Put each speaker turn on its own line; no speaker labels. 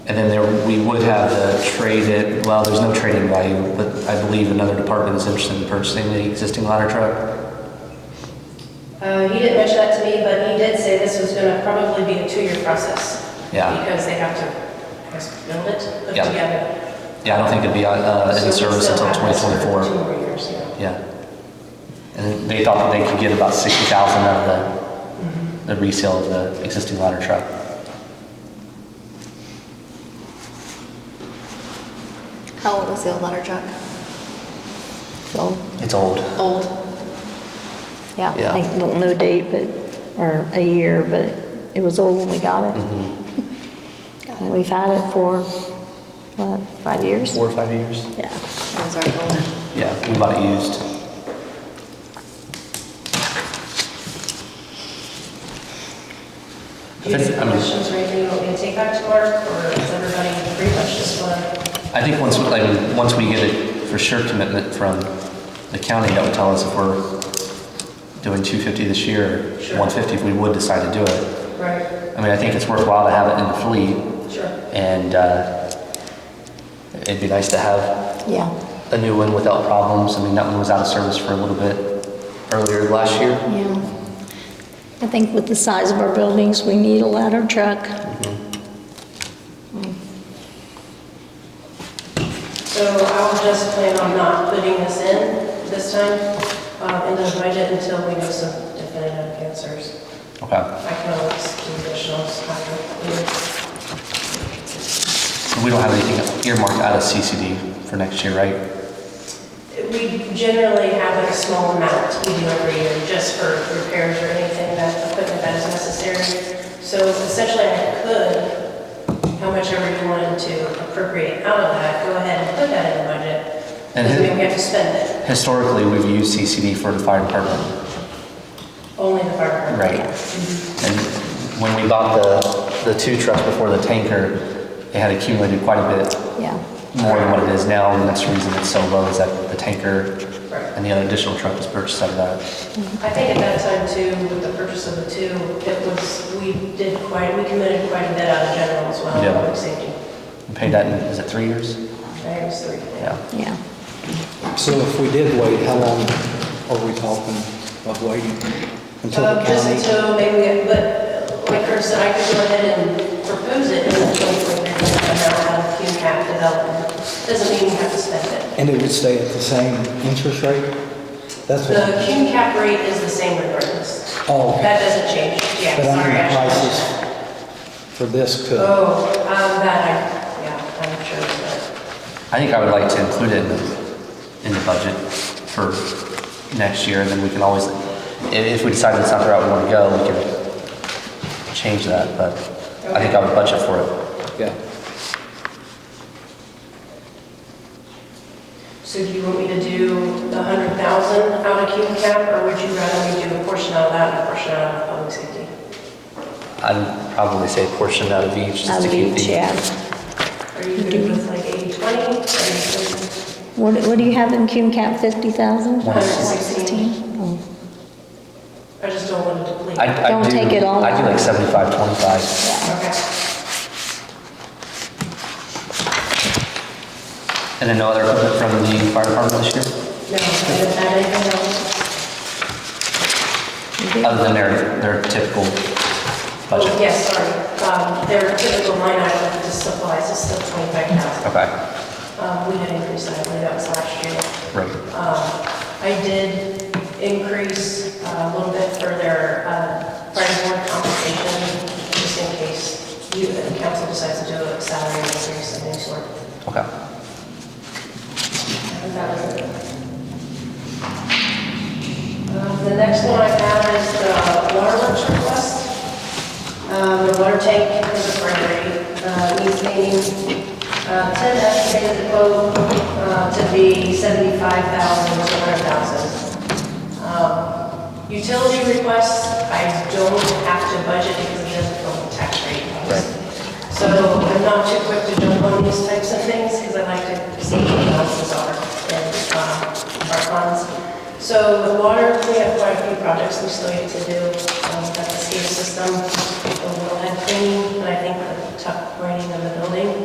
And then there, we would have the trade it, well, there's no trading value, but I believe another department is interested in purchasing the existing ladder truck.
Uh, He didn't mention that to me, but he did say this was going to probably be a two-year process.
Yeah.
Because they have to, I guess, build it, put
Yeah.
together.
Yeah, I don't think it'd be uh,
So
in
we
service
still
until
have this for
2024.
Two more years, yeah.
Yeah. And they thought that they could get about 60,000 out of the, the resale of the existing ladder truck.
How old is the old ladder truck? It's old.
It's old.
Old. Yeah,
Yeah.
I don't know date, but, or a year, but it was old when we got it. And We've had Mm-hmm. it for, what, five years?
Four or five years?
Yeah.
Yeah, we bought it used.
Do you have
I
any
mean-
questions or anything you want me to take back to work, or is everybody pretty much just want
I think once, we- I mean, once we get a for sure commitment from the county, that would tell us if we're doing 250 this year,
Sure.
150 if we would decide to do it.
Right,
I mean, I think it's worthwhile to have it in the fleet,
sure.
and uh, it'd be nice to have
Yeah,
a new one without problems. I mean, that one was out of service for a little bit earlier last year.
yeah. I think with the size of our buildings, we need a ladder truck.
So I will just plan on not putting this in this time, uh, into the budget until we know some definitive answers.
Okay,
I can always do additionals after.
so we don't have anything earmarked out of CCD for next year, right?
We generally have a small amount we do every year, just for repairs or anything that, equipment that is necessary. So essentially, I could, how much ever you wanted to appropriate out of that, go ahead and put that in the budget.
And
Because
who-
we have to spend it,
Historically, we've used CCD for the fire department.
only the fire department.
Right. And when we bought the, the two trucks before the tanker, it had accumulated quite a bit
Yeah,
more than what it is now, and that's the reason it's so low is that the tanker
Right.
and the other additional truck was purchased out of that.
I think at that time too, with the purchase of the two, it was, we did quite, we committed quite a bit out of general as well,
Yeah.
public safety.
We paid that in, was it three years?
That was three.
Yeah.
yeah.
So if we did wait, how long are we talking of waiting? Until the
Uh, Just
county?
until maybe, we get- but like Chris said, I could go ahead and propose it in the 2023 now out of QCAP development. Doesn't mean you have to spend it.
And it would stay at the same interest rate? That's
The
what,
QCAP rate is the same regardless.
Oh, okay.
That doesn't change, yeah,
but I
sorry.
mean,
Ashley.
prices for this could,
Oh, um, that, I- yeah, I'm sure, but
I think I would like to include it in the, in the budget for next year, and then we can always, if, if we decide that's not the route we want to go, we can change that, but I think I would budget for it.
yeah.
So do you want me to do the 100,000 out of QCAP, or would you rather we do a portion out of that and a portion out of public safety?
I'd probably say a portion out of each, just
Out
to
of
keep the.
each, yeah.
Are you good with like 80/20? Are you good?
What, what do you have in cum cap, 50,000?
116.
Oh.
I just don't want to deplete.
I, I
Don't
do,
take it all
I do like
out.
75, 25.
Okay.
And then no other equipment from the fire department this year?
No, I don't have anything else.
Other than their, their typical
Oh,
budget?
yes, sorry. Um, Their typical line item is supplies is still 25,000.
Okay,
Um, We had increased that, I believe that was last year.
right.
Um, I did increase uh, a little bit for their uh, fire board compensation, just in case you, the council decides to do a salary increase of any sort.
Okay.
And that was it. Uh, The next one I have is the water lunch request. Um, The water tank is a priority, uh, needs painting. Uh, Ted estimated the quote uh, to be 75,000 to 100,000. Um, Utility requests, I don't have to budget because it doesn't go with tax rate. So I'm not too quick to jump on these types of things because I like to see what the balances are and um, our funds. So with water, we have quite a few projects we still need to do. Um, That's the SCADA system, the wellhead cleaning, and I think the tuck grinding of the mill building.